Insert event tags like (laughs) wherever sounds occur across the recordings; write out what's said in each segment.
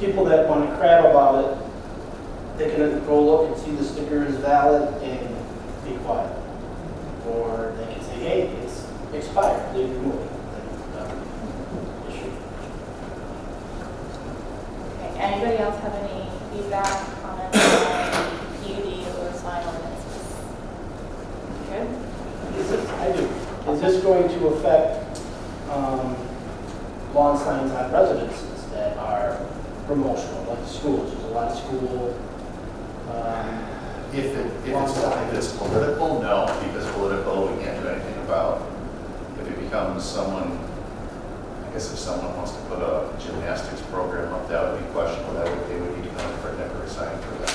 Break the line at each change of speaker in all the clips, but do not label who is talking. people that want to crap about it, they can go look and see the sticker is valid and be quiet. Or they can say, hey, it's expired, leave it moving.
Okay, anybody else have any feedback, comments on PUD or sign ordinances? Good?
Is this, I do, is this going to affect um, lawn signs on residences that are promotional, like schools? There's a lot of school, um,
If it, if it's, if it's political, no, because political, we can't do anything about. If it becomes someone, I guess if someone wants to put a gymnastics program up, that would be questionable, that would, they would need to come for a temporary sign for that.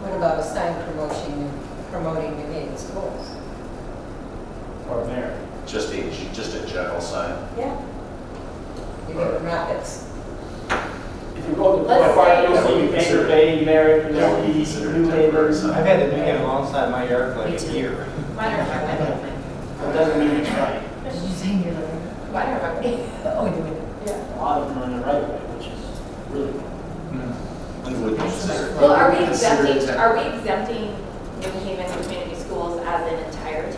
What about a sign promotion, promoting your neighbor's schools?
or merit.
Just a, g- just a general sign.
Yeah. Your rockets.
If you go to
Let's
Point Park,
say-
you'll see Baker Bay, Merritt,
That would
Middle
be
East,
considered
New
temporary
Haven.
sign.
I've had to do it alongside my yard for
Me
like
too.
a year.
Mine are my weapon.
It doesn't mean it's right.
Did you say your
(laughs)
rocket?
Mine are my weapon.
Oh, you did.
Yeah.
A lot of them are in the right way, which is really cool.
You would consider-
Well, are we
consider it
exempting,
temp-
are we exempting New Haven community schools as an entirety?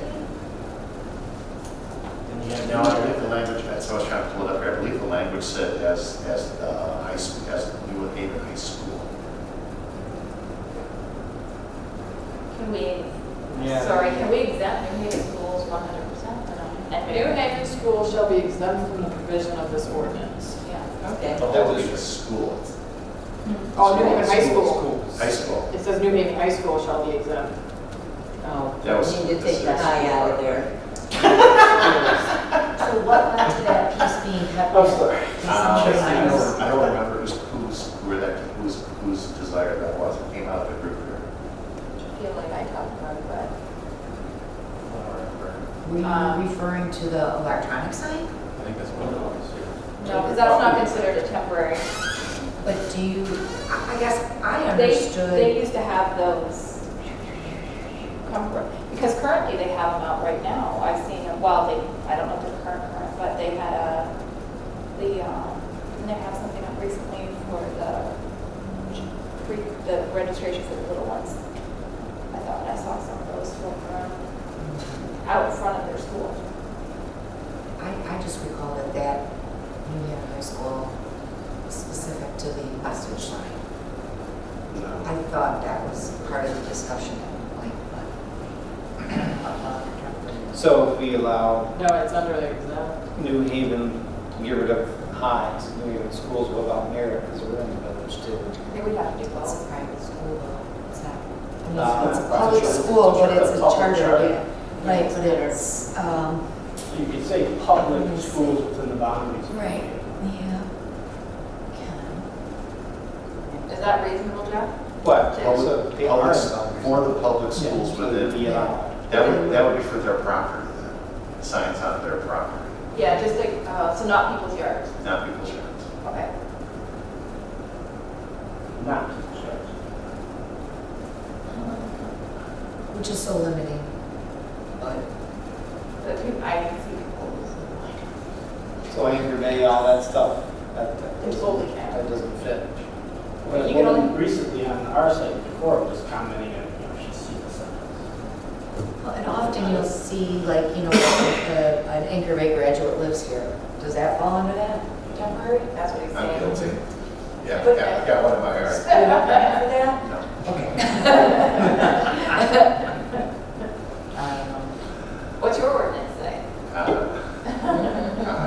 And you have
No, I believe the language, that's what I was trying to pull it up, here. I believe the language said as, as the high school, as the New Haven High School.
Can we,
Yeah.
sorry, can we exempt New Haven schools one hundred percent or not? And
New
Maryland?
Haven schools shall be exempt from the provision of this ordinance.
Yeah.
Okay.
Oh,
But that would be the school,
Oh, New Haven High School.
high school.
It says New Haven High School shall be exempt.
Oh,
That was-
you need to take the
that's-
high out of there.
(laughs) So what led to that piece being
Oh,
cut?
I'm sorry.
Uh, I don't, I don't remember who's, who's, where that, whose, whose desire that was, it came out of a group here.
I feel like I talked about it, but
I don't remember.
Were
Um,
you uh, referring to the electronic sign?
I think that's what it was. yeah.
no, because that's not considered a temporary.
But do you, I I guess I
They, they
understood.
used to have those come from, because currently they have them out right now. I've seen them, well, they, I don't know if they're current, current, but they had a, the, um, didn't they have something up recently for the, pre- the registration for the little ones? I thought I saw some of those floating around out in front of their school.
I, I just recall that that New Haven High School was specific to the message sign. I thought that was part of the discussion at one point, (clears throat) but.
So if we allow
No, it's under the exempt.
New Haven, get rid of highs, New Haven schools will allow merit because we're in the village too.
They would have to do
It's
both.
a private school though, it's
Uh,
not. It's a
it's a
public
charter-
school, but
it's a
it's a
public
charter,
charter.
yeah. Right, but it's, um,
So you could say public schools within the boundaries. of the
Right,
community.
yeah. Can.
Is that reasonable, Jeff?
What? So they
Public,
are
public,
allowed.
for the public
Yeah,
schools
So they'd
within,
be allowed.
that would, that would be for their property, then. signs on their property,
Yeah, just like, uh, so not people's yards.
not people's yards.
Okay.
Not to the church.
Which is so limiting. But
But we- I can see people like
So Anchor Bay, all that stuff, that, that
It's
doesn't,
totally capped.
that doesn't fit.
Well,
You can
well,
only-
recently on our site, Decor was commenting on, you know, she's seen the signs.
Well, And often you'll see, like, you know, uh, an Anchor Bay graduate lives here. Does that fall under that?
Temporary, that's what he's
I'm
saying. (laughs)
guilty. Yeah, I've got, I've got one in my yard.
Yeah.
No.
Okay. (laughs) Um,
(laughs) What's your ordinance say? (laughs)
Uh,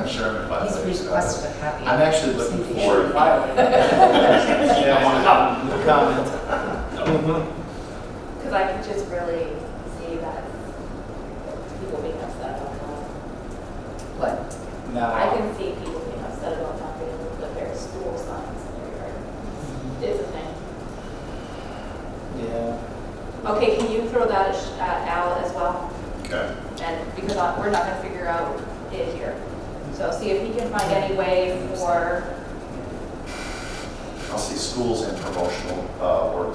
I'm sure I'm in
He's
violation.
requested a copy.
I'm actually looking
Safety
forward-
issue.
(laughs)
Yeah, no comment.
Because I can just really see that people being upset about that. I
What?
No,
can see people being upset about not being able to put their school signs in their yard. It's a thing.
yeah.
Okay, can you throw that at Sh- at Al as well?
Okay.
And because I- we're not going to figure out it here. So see if he can find any way for
I'll see schools and promotional, uh, words